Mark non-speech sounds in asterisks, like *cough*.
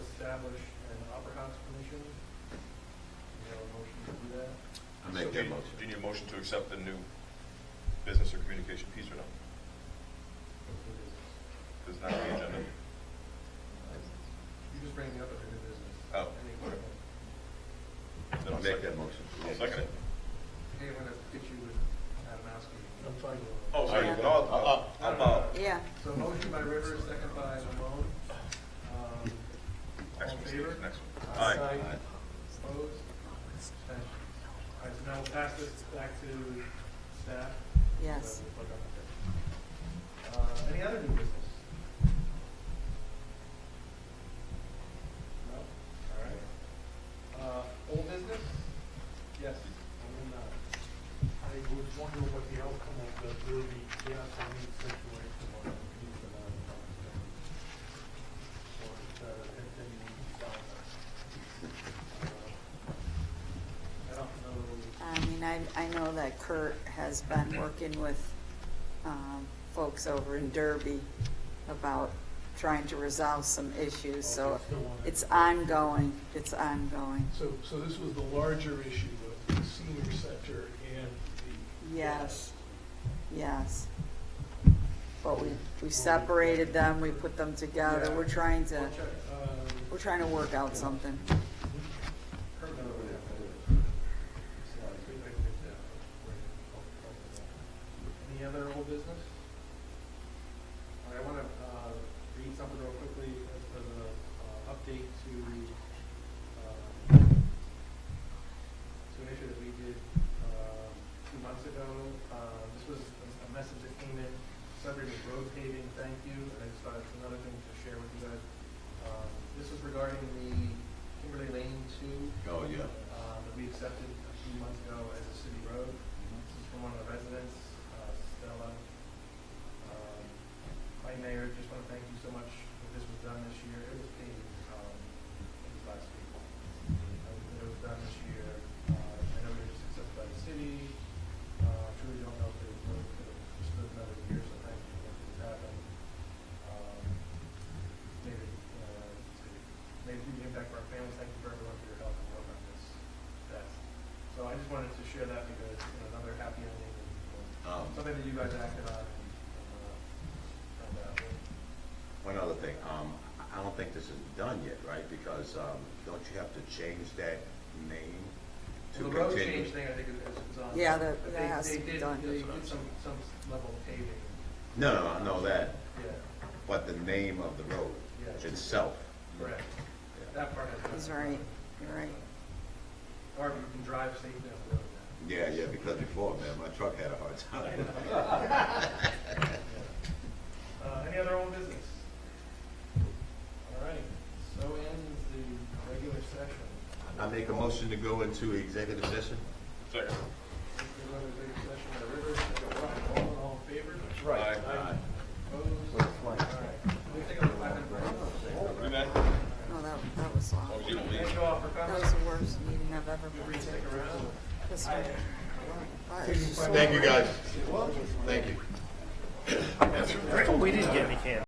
establish an Opera House Commission. Is there a motion to do that? I make So that do you- motion. Do you need a motion to accept the new business or communication piece or no? Does not on the agenda? You just bring me up under new business. Oh. I mean, Okay, Then I'll I make that second. motion. I'll second it. I'm gonna get you with Adamowski. I'm fine with it. Oh, sorry, Yeah. no, I'll- I'll- I'm, uh, Yeah. So motion by Rivers, second by Malone. Um, next All in one, favor? Steve, next one. Aye. Aye. Aye. Opposed? Abstentions. All right, so now we'll pass this back to staff. Yes. Uh, Any other new business? No? All right. Uh, Old business? Yes. I'm in, uh, I was wondering what the outcome of the Derby gas and meat situation was. He's been on the phone. So it's, uh, continuing down Uh, I don't know. I mean, I, I know that Kurt has been working with um, folks over in Derby about trying to resolve some issues, so it's ongoing, it's ongoing. So, so this was the larger issue of the senior center and the. Yes, yes. But we, we separated them, we put them together, we're trying to, I'll check. Uh, we're trying to work out something. Kurt knows what happened. So, I think I could, uh, wait. Any other old business? All right, I want to read something real quickly as as an update to um, to an issue that we did um, two months ago. Uh, This was a- a message that came in, subject of road paving, thank you, and I just thought it's another thing to share with you guys. Um, This is regarding the Kimberly Lane Two Oh, yeah. um, that we accepted a few months ago as a city road. This is from one of the residents, uh, Stella. Um, My mayor, just want to thank you so much that this was done this year. It was paved, um, it was last week. Uh, It was done this year. Uh, I know it was accepted by the city. Uh, Truly don't know if it would have stood another year, so thank you for this happened. Um, Maybe, uh, maybe we can impact for our families. Thank you for everyone for your help and work on this. That's, so I just wanted to share that because, you know, another happy ending, and Um, something that you guys acted on. and, uh, and, uh, One other thing, um, I- I don't think this is done yet, right? Because, um, don't you have to change that name to Well, continue? the road change thing, I think, is, is on. Yeah, that- but that they- has to they be did- done. They That's what I'm did some, some level of paving, No, no, I know that, yeah, but the name of the road Yeah. itself. correct. Yeah. That part has. He's right, you're right. Or you can drive safely down the road now. Yeah, yeah, because before, man, my truck had a hard time. *laughs* Uh, any other old business? All right, so ends the regular session. I make a motion to go into executive session? Second. We're going to regular session by Rivers, second by Wall, all in favor? Right. Aye. Opposed? All right. We take a five minute break. Do that. No, that, that was Oh, awful. you don't Thank leave. you all for That coming. was the worst meeting I've ever Feel free been to stick around. to. This one. Wow, it's just so Thank you, guys. Thank you. We didn't get any candy.